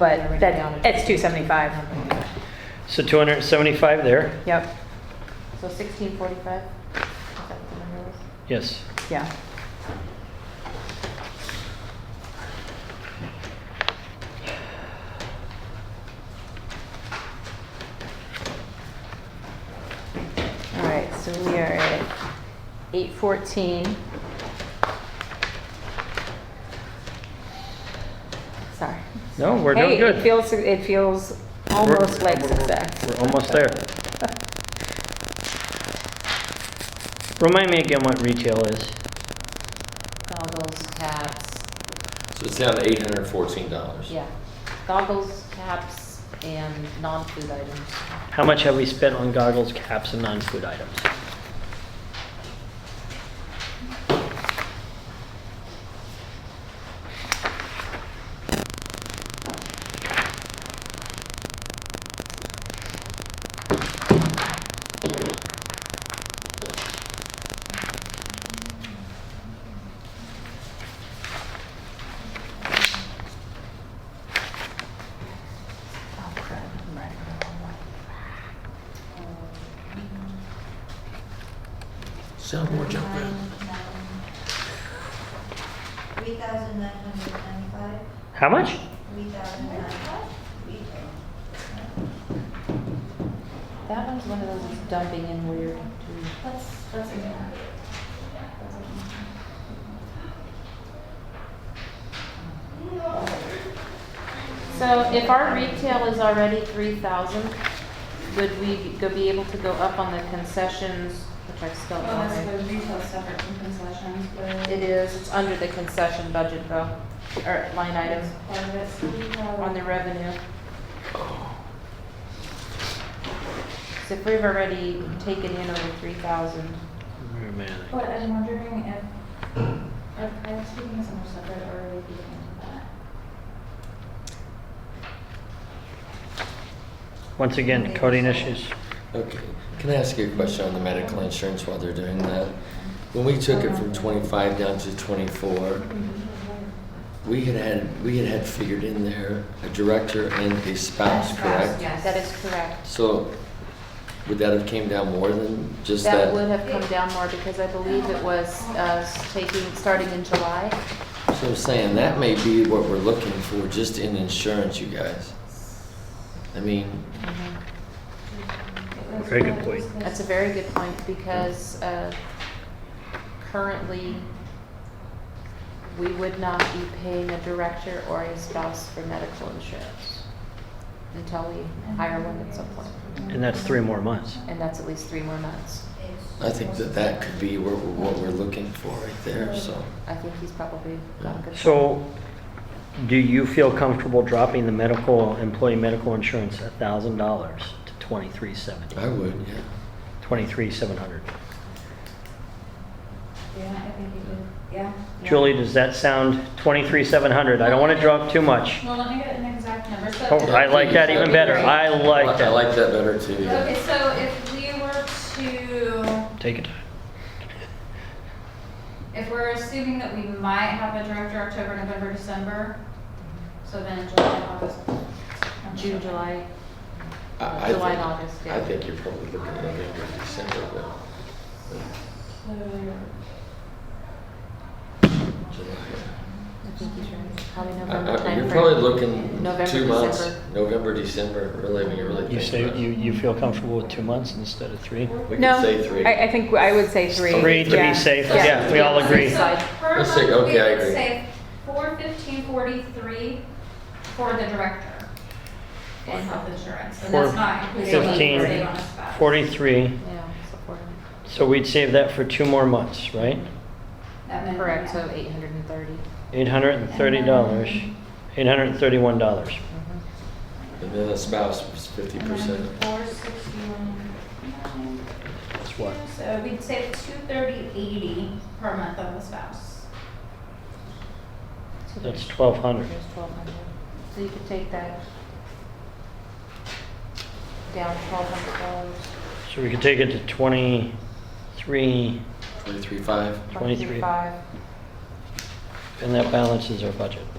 but that, it's 275. So 275 there, Yep, So sixteen forty-five? Is that what the number was? yes. yeah. All right, so we are at 814. Sorry. No, we're doing Hey, good. it feels, it feels We're- almost like we're- we're- success. We're almost there. Remind me again what retail is. Goggles, caps, So it's down to eight hundred and fourteen dollars. yeah. Goggles, caps, and non-food items. How much have we spent on goggles, caps, and non-food items? Oh, crap, I'm running the wrong way. Um, Soundboard jump in. Three thousand nine hundred ninety-five, How much? three thousand nine retail. That one's one of those that's dumping in weird. too. That's, that's a good one. So if our retail is already three thousand, would we be- go be able to go up on the concessions, which I still Well, that's don't know? the retail separate from concessions, but It is, it's under the concession budget though, or line item, it's part of it, so we have. on the revenue. So if we've already taken in over three thousand, Where am I at? But I'm wondering if, if I'm speaking as much separate or would be into that. Once again, coding issues. Okay, can I ask you a question on the medical insurance while they're doing that? When we took it from twenty-five down to twenty-four, we had had, we had had figured in there a director and a spouse, correct? that is correct. So would that have came down more than just That that? would have come down more because I believe it was uh, taking, starting in July. So I'm saying, that may be what we're looking for, just in insurance, you guys. I mean, It was Very good what point. was the- That's a very good point because uh, currently, we would not be paying a director or a spouse for medical insurance until we hire one at some point. And that's three more months. And that's at least three more months. I think that that could be where- what we're looking for right there, so. I think he's probably got a good. So do you feel comfortable dropping the medical, employee medical insurance $1,000 to 2370? I would, yeah. 23,700. Yeah, I think you did, yeah. Julie, does that sound 23,700? I don't want to drop too much. Well, let me get an exact number, so. Oh, I like that even better. I like I that. like that better too. yeah. Okay, so if we were to, Take it. if we're assuming that we might have a director October, November, December, so then July, August. June, July, I- I July and think- August, yeah. I think you're probably looking at November, December, but So, July. I think he's right, probably I- November I- You're timeframe. probably looking November, two months, December. November, December, really, when you really You think say, about you, it. you feel comfortable with two months instead of three? We No, could say three. I, I think I would say three. Three to yeah. be safe, Yeah. yeah, we all agree. so per Let's say- month, we okay, I would agree. say four fifteen forty-three for the director in health insurance, and Four that's not including what fifteen, they save on the spot. 43, Yeah, so four hundred. so we'd save that for two more months, right? That minimum, Correct, yeah. so eight hundred and thirty. $830, $831. Mm-hmm. And then the spouse was fifty And percent. then four sixty-one, nine. That's what? So we'd save two thirty eighty per month on the spouse. That's There's 1,200. twelve hundred. So you could take that down twelve hundred dollars. So we could take it to 23, Twenty-three, five. Twenty-three. Five. and that balances our budget.